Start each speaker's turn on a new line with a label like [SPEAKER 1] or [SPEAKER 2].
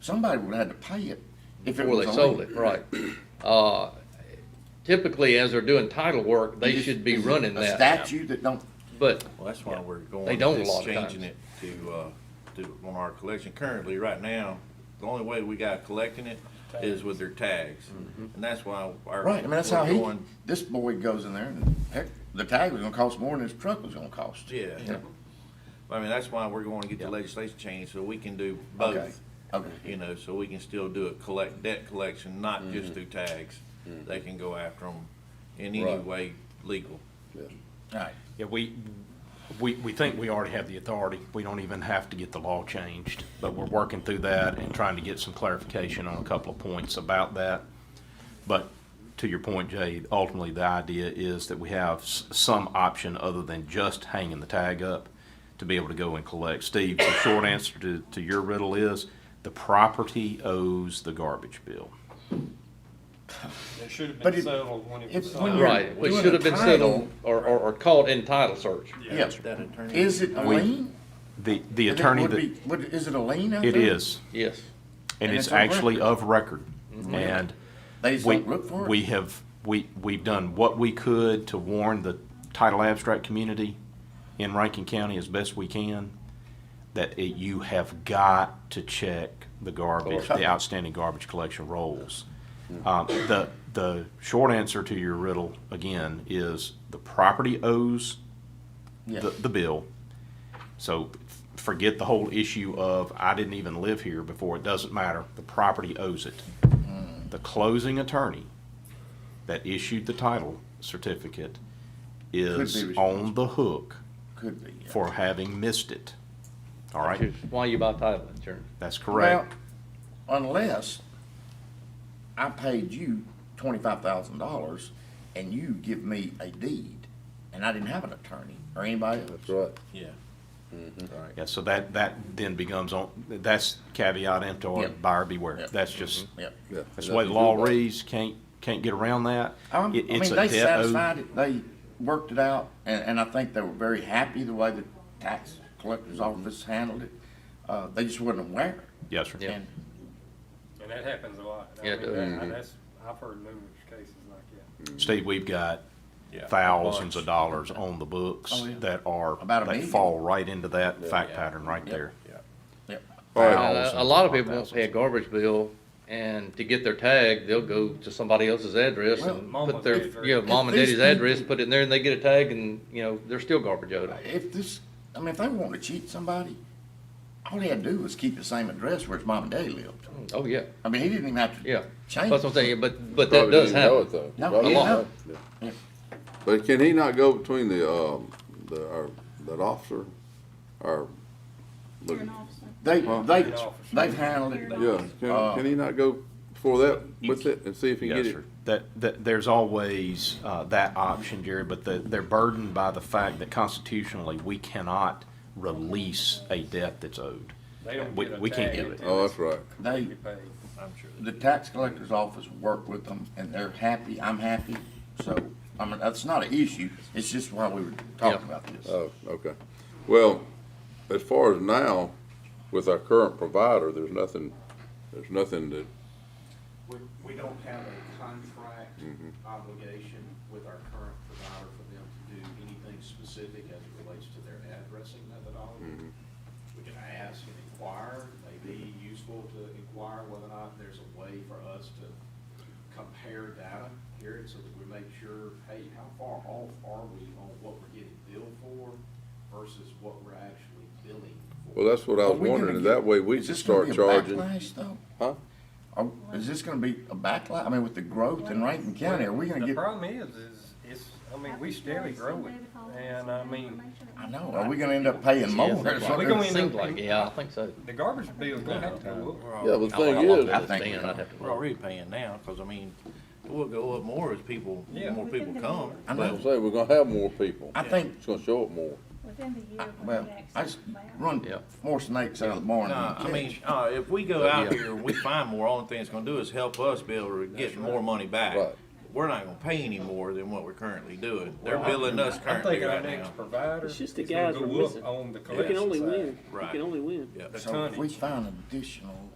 [SPEAKER 1] somebody would have had to pay it. if
[SPEAKER 2] before
[SPEAKER 1] was
[SPEAKER 2] they
[SPEAKER 1] on
[SPEAKER 2] sold it, right. Uh, Typically, as they're doing title work, they
[SPEAKER 1] It's-
[SPEAKER 2] should be
[SPEAKER 1] it's
[SPEAKER 2] running
[SPEAKER 1] A
[SPEAKER 2] that,
[SPEAKER 1] statute that don't,
[SPEAKER 2] but,
[SPEAKER 3] Well, that's why we're going.
[SPEAKER 2] They don't a
[SPEAKER 3] with
[SPEAKER 2] lot of
[SPEAKER 3] Changing
[SPEAKER 2] times.
[SPEAKER 3] it to, uh, to, on our collection currently, right now, the only way we got collecting it is with their tags.
[SPEAKER 2] Mm-hmm.
[SPEAKER 3] And that's why our.
[SPEAKER 1] right, I mean, that's how
[SPEAKER 3] we're
[SPEAKER 1] he,
[SPEAKER 3] going-
[SPEAKER 1] this boy goes in there and heck, the tag was gonna cost more than his truck was gonna cost.
[SPEAKER 3] Yeah.
[SPEAKER 2] Yeah.
[SPEAKER 3] I mean, that's why we're going to get the legislation changed, so we can do both.
[SPEAKER 1] Okay.
[SPEAKER 3] You know, so we can still do a collect, debt collection, not
[SPEAKER 2] Mm-hmm.
[SPEAKER 3] just through tags. They can go after them in any
[SPEAKER 2] Right.
[SPEAKER 3] way legal.
[SPEAKER 1] Alright,
[SPEAKER 4] Yeah, we, we, we think we already have the authority. We don't even have to get the law changed. But we're working through that and trying to get some clarification on a couple of points about that. But to your point, Jay, ultimately, the idea is that we have s- some option other than just hanging the tag up to be able to go and collect. Steve, the short answer to, to your riddle is the property owes the garbage bill.
[SPEAKER 5] It should have
[SPEAKER 1] But it-
[SPEAKER 5] been settled when it
[SPEAKER 1] it's
[SPEAKER 5] was
[SPEAKER 1] when
[SPEAKER 5] signed.
[SPEAKER 1] you're-
[SPEAKER 2] right, we
[SPEAKER 1] doing
[SPEAKER 2] should
[SPEAKER 1] a
[SPEAKER 2] have been
[SPEAKER 1] title-
[SPEAKER 2] settled or, or, or caught in title search.
[SPEAKER 1] yeah,
[SPEAKER 3] That attorney.
[SPEAKER 1] is it a
[SPEAKER 4] We-
[SPEAKER 1] lien?
[SPEAKER 4] The, the
[SPEAKER 1] Would it-
[SPEAKER 4] attorney
[SPEAKER 1] would
[SPEAKER 4] that,
[SPEAKER 1] be- would- is it a lien out
[SPEAKER 4] it
[SPEAKER 1] there?
[SPEAKER 4] is,
[SPEAKER 2] Yes,
[SPEAKER 4] and
[SPEAKER 1] And
[SPEAKER 4] it's
[SPEAKER 1] it's on Mm-hmm.
[SPEAKER 4] actually of record. And
[SPEAKER 1] They just
[SPEAKER 4] We,
[SPEAKER 1] don't look for it?
[SPEAKER 4] we have, we, we've done what we could to warn the title abstract community in Rankin County as best we can, that it, you have got to check the garbage, the outstanding garbage collection rolls. Um, the, the short answer to your riddle, again, is the property owes
[SPEAKER 1] Yeah.
[SPEAKER 4] the, the bill. So f- forget the whole issue of, I didn't even live here before, it doesn't matter, the property owes it.
[SPEAKER 1] Mm.
[SPEAKER 4] The closing attorney that issued the title certificate is on the hook
[SPEAKER 1] Could be. yeah.
[SPEAKER 4] for having missed it. All right,
[SPEAKER 2] why you buy title insurance?
[SPEAKER 4] that's
[SPEAKER 1] Well,
[SPEAKER 4] correct.
[SPEAKER 1] Unless I paid you twenty-five thousand dollars and you give me a deed, and I didn't have an attorney or anybody else.
[SPEAKER 6] right.
[SPEAKER 3] Yeah. Right.
[SPEAKER 4] Yeah, so that, that then becomes on, that's caveat emptor,
[SPEAKER 1] Yep.
[SPEAKER 4] buyer beware.
[SPEAKER 1] Yep. Mm-hmm.
[SPEAKER 4] That's just,
[SPEAKER 1] Yep.
[SPEAKER 6] Yeah.
[SPEAKER 4] that's the way the law reads, can't, can't get around that.
[SPEAKER 1] Um,
[SPEAKER 4] It-
[SPEAKER 1] I
[SPEAKER 4] it's
[SPEAKER 1] mean, they
[SPEAKER 2] oh.
[SPEAKER 4] a debt owed.
[SPEAKER 1] satisfied it, they worked it out, and, and I think they were very happy the way the tax collector's office handled it. Uh, they just wasn't aware.
[SPEAKER 4] Yes, sir.
[SPEAKER 1] And
[SPEAKER 5] And that happens a lot. I
[SPEAKER 2] Yeah, it
[SPEAKER 5] mean,
[SPEAKER 2] does.
[SPEAKER 5] that- That's, I've heard numerous cases like that.
[SPEAKER 4] Steve, we've got
[SPEAKER 3] Yeah.
[SPEAKER 4] thousands of
[SPEAKER 3] Bunch.
[SPEAKER 4] dollars on the books
[SPEAKER 1] Oh, yeah.
[SPEAKER 4] that are,
[SPEAKER 1] About a
[SPEAKER 4] that
[SPEAKER 1] million.
[SPEAKER 4] fall right into that fact
[SPEAKER 3] Yeah.
[SPEAKER 4] pattern right there.
[SPEAKER 3] Yeah.
[SPEAKER 1] Yep.
[SPEAKER 2] Uh, A lot of people won't
[SPEAKER 4] Thousands.
[SPEAKER 2] pay a garbage bill, and to get their tag, they'll go to somebody else's address
[SPEAKER 1] Well,
[SPEAKER 2] and
[SPEAKER 5] mom
[SPEAKER 2] put
[SPEAKER 5] and
[SPEAKER 2] their,
[SPEAKER 5] daddy's
[SPEAKER 2] you know,
[SPEAKER 5] address.
[SPEAKER 2] mom and
[SPEAKER 1] If
[SPEAKER 2] daddy's
[SPEAKER 1] these
[SPEAKER 2] address,
[SPEAKER 1] people-
[SPEAKER 2] put it in there, and they get a tag, and, you know, they're still garbage owed.
[SPEAKER 1] If this, I mean, if they wanted to cheat somebody, all he had to do was keep the same address where his mom and daddy lived.
[SPEAKER 2] Oh, yeah,
[SPEAKER 1] I mean, he didn't even have to
[SPEAKER 2] yeah. That's
[SPEAKER 1] change.
[SPEAKER 2] what I'm saying, but, but that
[SPEAKER 6] Probably
[SPEAKER 2] does
[SPEAKER 6] didn't know it,
[SPEAKER 2] happen.
[SPEAKER 6] though.
[SPEAKER 1] No,
[SPEAKER 6] Probably
[SPEAKER 1] he
[SPEAKER 2] didn't
[SPEAKER 6] not. Yeah. But can he not go between the, um, the, our, that officer, our,
[SPEAKER 7] You're
[SPEAKER 6] look,
[SPEAKER 7] an officer.
[SPEAKER 1] They, they,
[SPEAKER 5] Well-
[SPEAKER 1] they've handled it. They-
[SPEAKER 6] yeah,
[SPEAKER 1] Uh,
[SPEAKER 6] can, can he not go before that with it and see if he can
[SPEAKER 4] Yes,
[SPEAKER 6] get it?
[SPEAKER 4] sir. That, that, there's always, uh, that option, Jerry, but the, they're burdened by the fact that constitutionally, we cannot release a debt that's owed.
[SPEAKER 5] They don't
[SPEAKER 4] We-
[SPEAKER 5] get a
[SPEAKER 4] we can't
[SPEAKER 5] tag
[SPEAKER 4] do it.
[SPEAKER 5] until
[SPEAKER 6] Oh,
[SPEAKER 5] it's
[SPEAKER 6] that's right.
[SPEAKER 1] They,
[SPEAKER 5] repaid. I'm sure.
[SPEAKER 1] the tax collector's office worked with them, and they're happy, I'm happy, so, I mean, that's not an issue, it's just why we were talking
[SPEAKER 2] Yeah. Uh,
[SPEAKER 1] about this.
[SPEAKER 6] Oh, okay. Well, as far as now, with our current provider, there's nothing, there's nothing that,
[SPEAKER 8] We, we don't have a contract obligation with our current provider for them to do anything specific as it relates to their addressing methodology. We can ask and inquire, may be useful to inquire whether or not there's a way for us to compare data here so that we make sure, hey, how far off are we on what we're getting billed for versus what we're actually billing for?
[SPEAKER 6] well, that's what I
[SPEAKER 1] Are
[SPEAKER 6] was
[SPEAKER 1] we gonna
[SPEAKER 6] wondering,
[SPEAKER 1] get-
[SPEAKER 6] that way we
[SPEAKER 1] is
[SPEAKER 6] can
[SPEAKER 1] this gonna
[SPEAKER 6] start
[SPEAKER 1] be a
[SPEAKER 6] charging.
[SPEAKER 1] backlash, though?
[SPEAKER 6] Huh?
[SPEAKER 1] Are- Is this gonna be a backlash, I mean, with the growth in Rankin County, are we gonna
[SPEAKER 5] The
[SPEAKER 1] get,
[SPEAKER 5] problem is, is, it's, I mean, we steadily growing, and I mean,
[SPEAKER 1] I know, are we gonna end up paying more? That's what
[SPEAKER 5] we
[SPEAKER 1] they're-
[SPEAKER 5] gonna
[SPEAKER 2] It
[SPEAKER 5] end
[SPEAKER 2] seems
[SPEAKER 5] up-
[SPEAKER 2] like, yeah, I think so.
[SPEAKER 5] the garbage bill's gonna have to go up.
[SPEAKER 2] Oh, I
[SPEAKER 6] Yeah, but the
[SPEAKER 2] don't know
[SPEAKER 6] thing
[SPEAKER 2] how long
[SPEAKER 6] is,
[SPEAKER 2] that has
[SPEAKER 1] I think
[SPEAKER 2] been,
[SPEAKER 1] we
[SPEAKER 2] I'd have to-
[SPEAKER 3] We're already paying now, cause I mean, it will go up more as people,
[SPEAKER 5] Yeah.
[SPEAKER 3] more people come.
[SPEAKER 1] I
[SPEAKER 6] that's
[SPEAKER 1] know,
[SPEAKER 6] what I'm saying, we're gonna have more people.
[SPEAKER 1] I think,
[SPEAKER 6] It's gonna show up more.
[SPEAKER 7] Within the year.
[SPEAKER 1] I-
[SPEAKER 7] when
[SPEAKER 1] well,
[SPEAKER 7] the accident
[SPEAKER 1] I just
[SPEAKER 7] happened.
[SPEAKER 1] run
[SPEAKER 2] Yeah.
[SPEAKER 1] more snakes out of the barn
[SPEAKER 3] No,
[SPEAKER 1] than
[SPEAKER 3] I
[SPEAKER 1] I
[SPEAKER 3] mean, uh, if we go out
[SPEAKER 2] Yeah.
[SPEAKER 3] here and we find more, only thing it's gonna do is help us be able to get more money back.
[SPEAKER 6] Right.
[SPEAKER 3] We're not gonna pay any more than what we're currently doing. They're billing us
[SPEAKER 5] I think
[SPEAKER 3] currently
[SPEAKER 5] our
[SPEAKER 3] right
[SPEAKER 5] next
[SPEAKER 3] now.
[SPEAKER 5] provider
[SPEAKER 9] It's
[SPEAKER 5] is
[SPEAKER 9] just the
[SPEAKER 5] gonna
[SPEAKER 9] guys we're
[SPEAKER 5] go up
[SPEAKER 9] missing.
[SPEAKER 5] on the
[SPEAKER 9] You can
[SPEAKER 5] collection
[SPEAKER 9] only
[SPEAKER 5] side.
[SPEAKER 9] win. You
[SPEAKER 3] Right.
[SPEAKER 9] can only win.
[SPEAKER 3] Yeah.
[SPEAKER 5] The
[SPEAKER 1] So if we
[SPEAKER 5] tonnage.
[SPEAKER 1] find additional